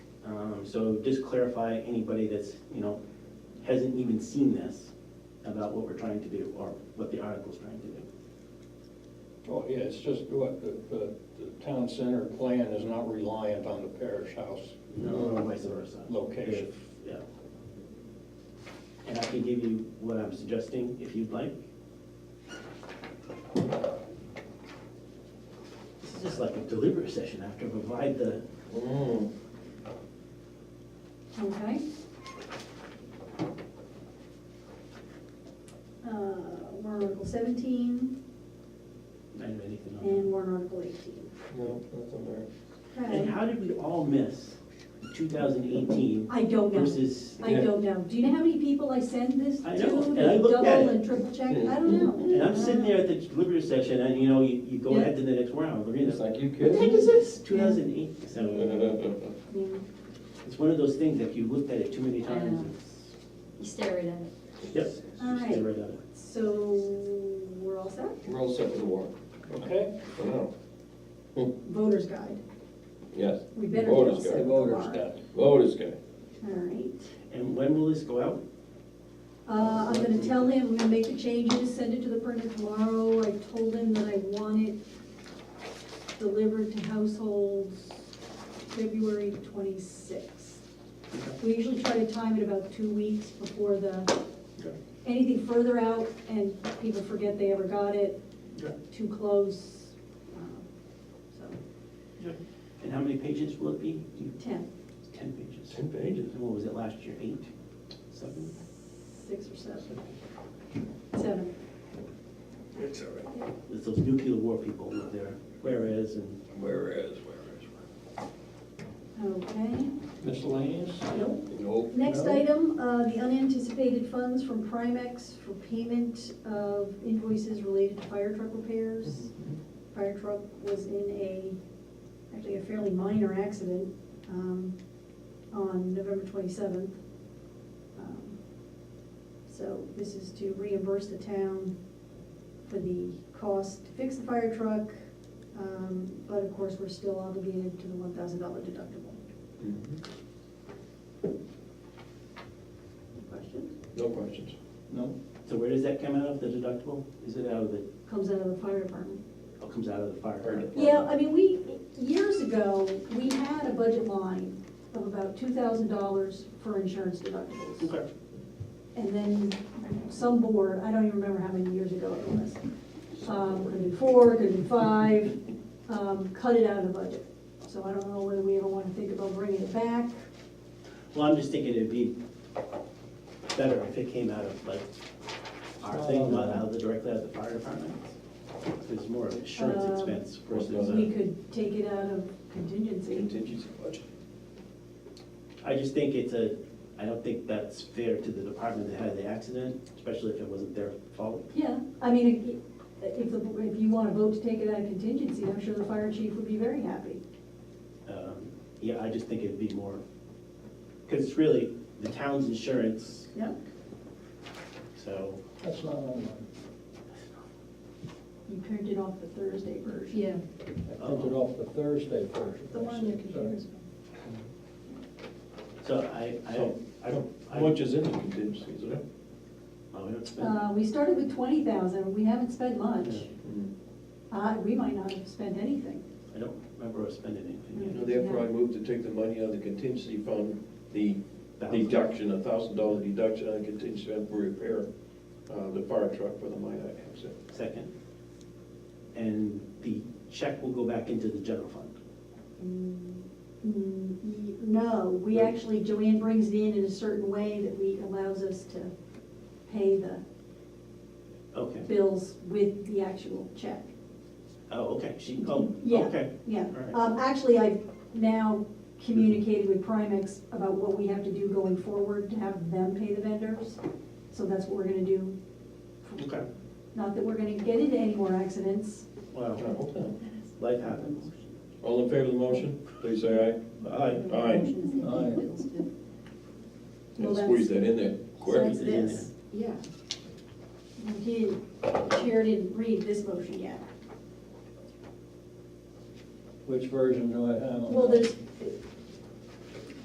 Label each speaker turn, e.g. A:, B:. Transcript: A: from. Um, So just clarify anybody that's, you know, hasn't even seen this about what we're trying to do or what the article's trying to do.
B: Oh, yeah, it's just what, the, the, the town center plan is not reliant on the parish house.
A: Or vice versa.
B: Location.
A: If- Yeah. And I can give you what I'm suggesting if you'd like. This is just like a deliberate session after we provide the, Mm,
C: Okay. Uh, warrant article seventeen
A: I don't know anything on that.
C: and warrant article eighteen.
D: No, nothing there.
A: And
C: Okay,
A: how did we all miss 2018
C: I don't know,
A: versus?
C: I don't know. Do you know how many people I send this to?
A: I know, and
C: to
A: I looked at
C: Double
A: it.
C: and triple check, I don't know.
A: And I'm sitting there at the deliberative session and, you know, you, you go
C: Yeah.
A: ahead to the next round, we're
D: It's
A: gonna,
D: like, you
A: what the heck
D: kidding?
A: is this? 2008, so
D: Well,
C: Yeah.
A: it's one of those things that if you looked at it too many
C: I know.
A: times, it's,
E: You stare right at it.
A: yep. you
C: All
A: stay
C: right.
A: right on it.
C: So, we're all set?
D: We're all set for the warrant,
B: Okay?
D: for now.
C: Voter's guide.
D: Yes,
C: We better. get
D: Voter's guide.
C: all set
B: The
C: for
B: voters
C: warrant.
B: got it.
D: voters guy.
C: All right.
A: And when will this go out?
C: Uh, I'm gonna tell him, I'm gonna make the changes, send it to the printer tomorrow. I told him that I want it delivered to households February twenty-sixth. We usually try to time it about two weeks before the,
A: Okay.
C: anything further out and people forget they ever got it,
A: Okay.
C: too close. um, So,
A: And how many pages will it be? You-
C: ten,
A: Ten pages.
D: Ten pages.
A: And what was it last year, eight, seven?
C: six or seven, seven.
D: It's all right.
A: It's those nuclear war people with their whereas and
D: Whereas, whereas.
C: Okay.
B: Miscellaneous? Nope.
D: Nope.
C: Next item, uh, the unanticipated funds from Primex for payment of invoices related to fire truck repairs. Fire truck was in a, actually a fairly minor accident um, on November 27th. Um, So this is to reimburse the town for the cost to fix the fire truck, um, but of course, we're still obligated to the $1,000 deductible.
D: Mhm.
C: Questions?
D: No questions.
B: No.
A: So where does that come out of, the deductible? Is it out of the,
C: Comes out of the fire department.
A: oh, comes out of the fire?
D: Fire department.
C: Yeah, I mean, we, years ago, we had a budget line of about two thousand dollars for insurance deductibles.
A: Okay.
C: And then some board, I don't even remember how many years ago it was, um, could have been four, could have been five, um, cut it out of the budget. So I don't know whether we ever want to think about bringing it back.
A: Well, I'm just thinking it'd be better if it came out of like our thing,
C: uh,
A: not out of the, directly out of the fire department. It's more of an insurance
C: Um,
A: expense versus,
D: Well,
C: We
A: a-
C: could take it out of contingency.
D: Contingency budget.
A: I just think it's a, I don't think that's fair to the department that had the accident, especially if it wasn't their fault.
C: Yeah, I mean, if, the- if you want to vote to take it out of contingency, I'm sure the fire chief would be very happy.
A: Um, Yeah, I just think it'd be more, because it's really the town's insurance,
C: Yeah.
A: so.
B: That's not online.
C: You printed off the Thursday version.
E: Yeah.
B: I printed off the Thursday version.
C: The one your computer's been.
A: So I, I, I don't. I-
D: How much is in the contingency, is it?
A: Oh, we don't spend.
C: Uh, we started with twenty thousand, we haven't spent much.
A: Yeah.
D: Mm-hmm.
C: Uh, we might not have spent anything.
A: I don't remember us spending
C: mm-hmm.
A: anything.
D: Now therefore, I move to take the money out of the contingency fund, the
A: Thousand.
D: deduction, a thousand dollar deduction on contingency fund for repair, uh, the fire truck for the minor accident.
A: Second. And the check will go back into the general fund.
C: Mm, mm, y- No, we actually, Joanne brings it in in a certain way that we, allows us to pay the
A: Okay.
C: bills with the actual check.
A: Oh, okay, she, oh,
C: Yeah.
A: okay.
C: Yeah,
A: Alright.
C: um, actually, I've now communicated with Primex about what we have to do going forward to have them pay the vendors. So that's what we're gonna do.
A: Okay,
C: Not that we're gonna get into any more accidents.
A: wow,
D: Okay.
A: life happens.
D: All in favor of the motion, please say aye.
A: Aye.
D: Aye.
C: Well,
D: And
C: that's-
D: squeeze that in there
C: So
D: quick.
C: that's this, yeah. You did, the chair didn't read this motion yet.
B: Which version do I have on?
C: Well, there's,